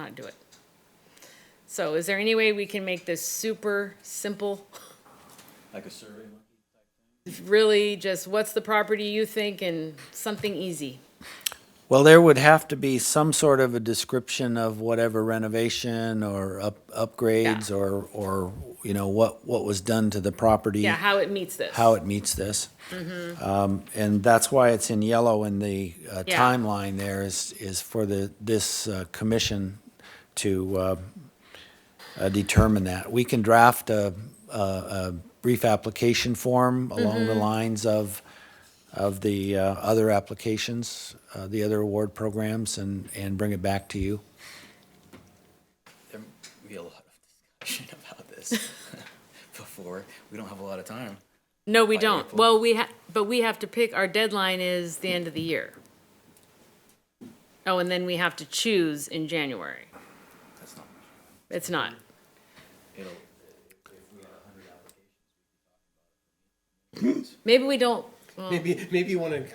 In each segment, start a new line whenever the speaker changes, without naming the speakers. not do it. So is there any way we can make this super simple?
Like a survey monkey?
Really just what's the property you think and something easy?
Well, there would have to be some sort of a description of whatever renovation or up, upgrades
Yeah.
or, or, you know, what, what was done to the property.
Yeah, how it meets this.
How it meets this. Um, and that's why it's in yellow in the uh,
Yeah.
timeline there is, is for the, this, uh, commission to, uh, uh, determine that. We can draft a, a, a brief application form along the lines of, of the uh, other applications, uh, the other award programs, and, and bring it back to you.
There will be a lot of discussion about this before. We don't have a lot of time.
No, we
by
don't.
April.
Well, we ha, but we have to pick, our deadline is the end of the year. Oh, and then we have to choose in January.
That's not much.
It's not.
It'll,
Maybe we don't, well,
Maybe, maybe you want to.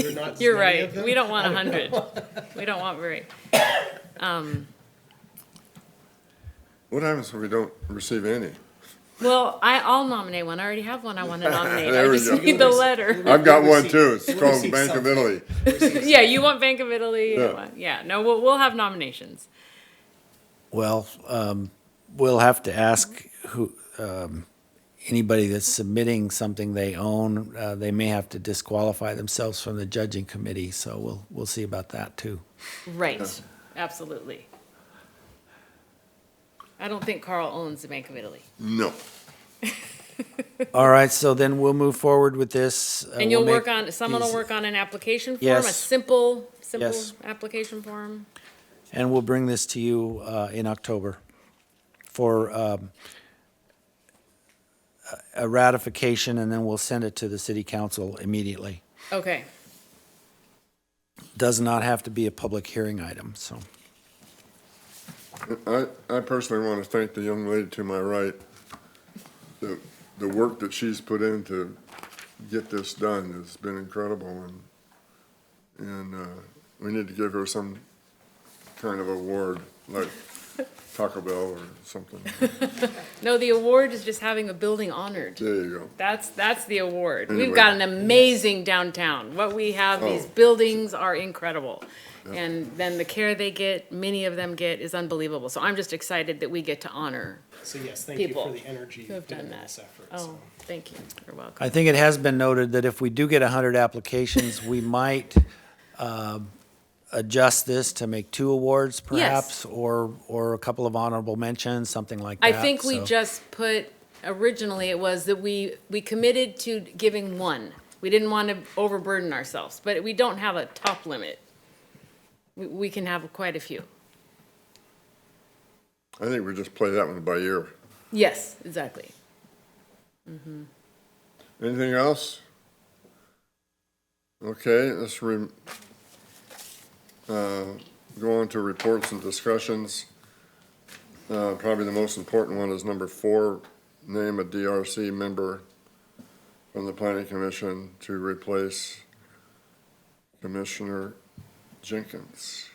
You're not
you're
as many
right.
of them.
We don't want a hundred. We don't want very, um,
What happens if we don't receive any?
well, I, I'll nominate one. I already have one I want to nominate. I
There we
just
go.
need the letter.
I've got one
receive-
too. It's
we
called
receive
Bank of
something.
Italy.
Yeah, you want Bank of Italy? I
Yeah.
want- Yeah, no, we'll, we'll have nominations.
Well, um, we'll have to ask who, um, anybody that's submitting something they own, uh, they may have to disqualify themselves from the judging committee, so we'll, we'll see about that too.
Right, absolutely. I don't think Carl owns the Bank of Italy.
No.
All right, so then we'll move forward with this. uh,
And you'll
we'll
work
make
on, someone will
these-
work on an application form, a
Yes.
simple, simple
Yes.
application form?
And we'll bring this to you uh, in October for um, a a ratification, and then we'll send it to the city council immediately.
Okay,
Does not have to be a public hearing item, so.
I, I personally want to thank the young lady to my right. The, the work that she's put in to get this done has been incredible and, and, uh, we need to give her some kind of award, like Taco Bell or something.
no, the award is just having a building honored.
There you go.
That's, that's the award. We've
Anyway.
got an amazing downtown. What we have, these
Oh.
buildings are incredible. And then the care they get, many of them get, is unbelievable. So I'm just excited that we get to honor
So yes, thank you for
people
the energy
who have
you've
done
given
that.
this effort.
Oh,
so.
thank you. You're welcome.
I think it has been noted that if we do get 100 applications, we might um, adjust this to make two awards perhaps, or, or a couple of honorable mentions, something like
I
that.
think we
so-
just put, originally it was that we, we committed to giving one. We didn't want to overburden ourselves, but we don't have a top limit. We, we can have quite a few.
I think we just play that one by ear.
Yes, exactly.
Anything else? Okay, let's re, uh, go on to reports and discussions. Uh, probably the most important one is number four, name a DRC member from the planning commission to replace Commissioner Jenkins.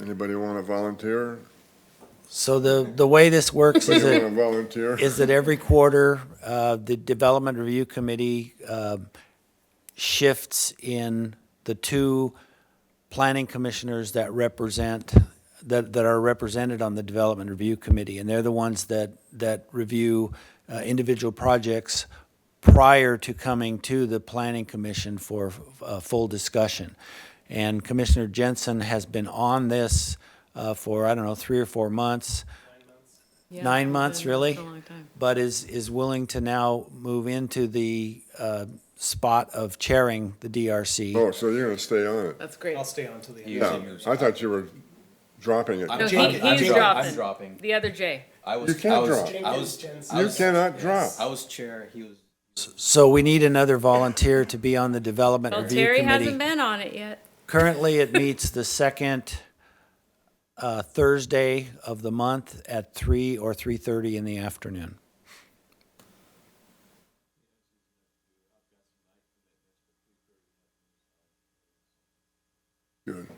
Anybody want to volunteer?
So the, the way this works is
Anybody
that,
want to volunteer?
is that every quarter, uh, the Development Review Committee um, shifts in the two planning commissioners that represent, that, that are represented on the Development Review Committee. And they're the ones that, that review uh, individual projects prior to coming to the Planning Commission for uh full discussion. And Commissioner Jensen has been on this uh, for, I don't know, three or four months
Yeah,
nine
it's
months,
been-
really?
it's been a long time.
But is, is willing to now move into the uh, spot of chairing the DRC.
Oh, so you're going to stay on it?
That's great.
I'll stay on to the end.
Yeah, I thought you were dropping it.
No, he,
I'm- I'm
he's
dropping.
dropping.
I'm dropping.
The other J.
I was,
You can't
I was,
drop.
I was,
Jenkins,
I
You
was-
cannot drop.
I was chair, he was.
So we need another volunteer to be on the Development
Well,
Review
Terry hasn't
Committee.
been on it yet.
Currently, it meets the second uh, Thursday of the month at three or 3:30 in the afternoon.
Good.